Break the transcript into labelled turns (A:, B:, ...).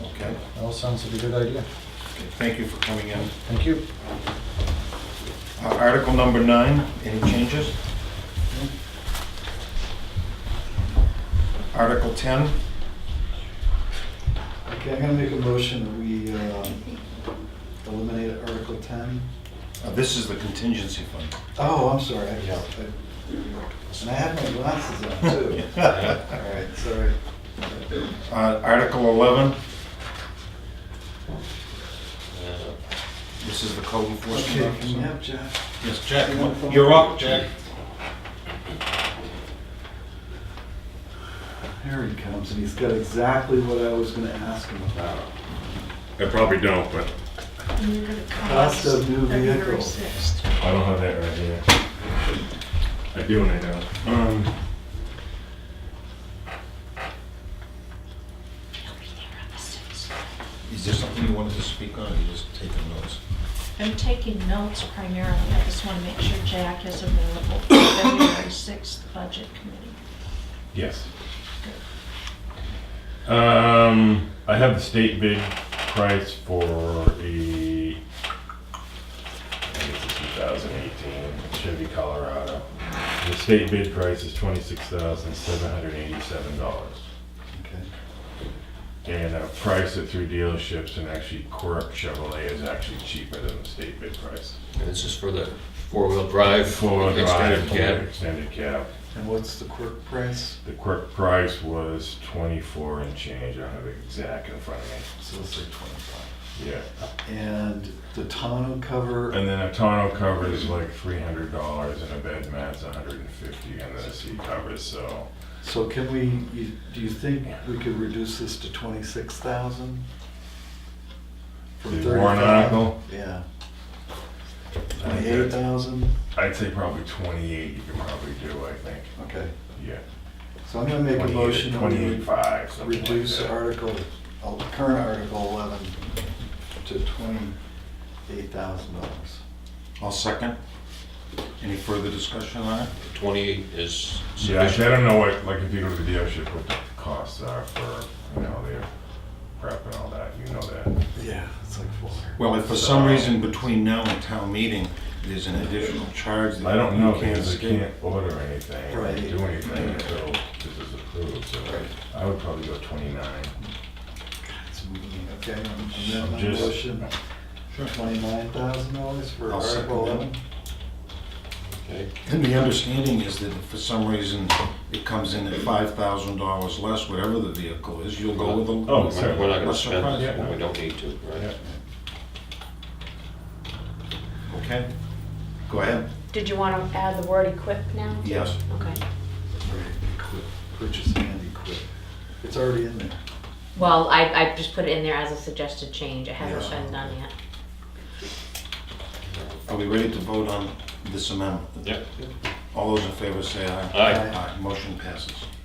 A: All sounds like a good idea.
B: Okay, Thank you for coming in.
A: Thank you.
B: Uh, Article number nine, any changes? Article 10,
C: Okay, I'm gonna make a motion that we um, eliminate Article 10.
B: uh, this is the contingency fund.
C: Oh, I'm sorry, I just, I- and I have my glasses on too. All right, sorry.
B: Uh, Article 11. This is the code enforcement
C: Okay, can you have
B: officer.
C: Jeff?
B: Yes, Jack, you're up, Jack.
C: Here he comes, and he's got exactly what I was gonna ask him about.
D: I probably don't, but
E: And you're gonna come
C: Cost
E: up
C: of new
E: February
C: vehicle.
E: 6th.
D: I don't have that right here. I do and I don't. Um,
B: Is there something you wanted to speak on, or you just taking notes?
E: I'm taking notes primarily, I just want to make sure Jack is available for February 6th Budget Committee.
D: yes. Um, I have the state bid price for a, I think it's a 2018 Chevy Colorado. The state bid price is $26,787.
C: Okay.
D: And I priced it through dealerships and actually Quirk Chevrolet is actually cheaper than the state bid price.
F: And this is for the four-wheel drive.
D: Four-wheel drive,
F: extended cab.
D: extended cab.
C: And what's the quirk price?
D: The quirk price was twenty-four and change, I don't have it exact in front of me,
C: So let's say 25.
D: yeah.
C: And the tonneau cover,
D: And then a tonneau cover is like three hundred dollars and a bed mat's a hundred and fifty and then a seat cover, so.
C: so can we, you- do you think we could reduce this to 26,000? From
D: The warrant
C: 35?
D: article?
C: Yeah.
D: I think
C: Twenty-eight
D: that's-
C: thousand?
D: I'd say probably twenty-eight you can probably do, I think,
C: Okay,
D: yeah.
C: so I'm gonna make a motion that we
D: Twenty-eight-five, something like
C: reduce
D: that.
C: Article, uh, current Article eleven to twenty-eight thousand dollars.
B: I'll second. Any further discussion on it?
F: Twenty is
D: Yeah, actually, I
F: sufficient.
D: don't know what, like, if you go to the dealership, what the costs are for, you know, their prep and all that, you know that.
C: Yeah, it's like four.
B: Well, if for some reason between now and town meeting, there's an additional charge that
D: I don't know,
B: you can't
D: because I
B: escape.
D: can't order anything, or
C: Right.
D: do anything until this is approved, so I would probably go twenty-nine.
C: It's mean, Okay, I'm- I'm gonna
D: Just-
C: motion
B: Sure.
C: twenty-nine thousand dollars for
B: I'll second
C: Article
B: that.
C: eleven.
F: Okay.
B: And the understanding is that if for some reason it comes in at five thousand dollars less, whatever the vehicle is, you'll go with the.
D: Oh, sorry.
F: We're not gonna
B: lesser
F: spend
B: price.
F: it when we don't need to, right?
D: Oh.
B: Okay, go ahead.
G: Did you want to add the word equip now?
B: Yes.
G: Okay.
C: Right, equip, Purchase and equip. It's already in there.
G: Well, I, I just put it in there as a suggested change. It hasn't
C: Yeah.
G: been done yet.
B: Are we ready to vote on this amendment?
F: Yep.
B: All those in favor say aye.
F: Aye.
B: Motion passes.